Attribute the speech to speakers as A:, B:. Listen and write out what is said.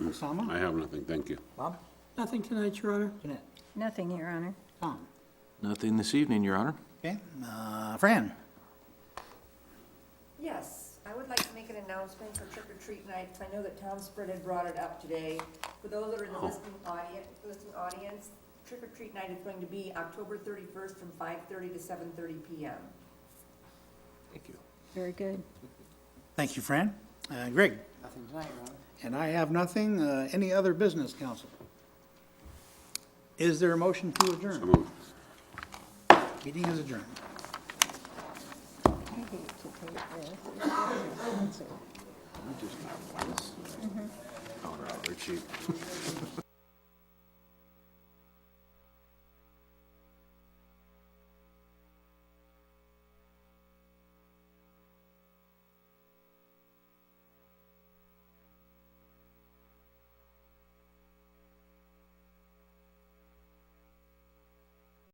A: Kusama?
B: I have nothing, thank you.
A: Bob?
C: Nothing tonight, Your Honor.
A: Jeanette?
D: Nothing, Your Honor.
A: Tom?
E: Nothing this evening, Your Honor.
A: Okay, uh, Fran?
F: Yes, I would like to make an announcement for trick or treat night. I know that Tom Spritt had brought it up today. For those that are in the listening audience, listening audience, trick or treat night is going to be October thirty-first from five-thirty to seven-thirty PM.
D: Very good.
A: Thank you, Fran. Uh, Greg?
G: Nothing tonight, Your Honor.
A: And I have nothing. Uh, Any other business, council? Is there a motion to
B: So
A: adjourn?
B: moved.
A: Meeting is adjourned.
D: I hate to take this.
B: All right, we're cheap.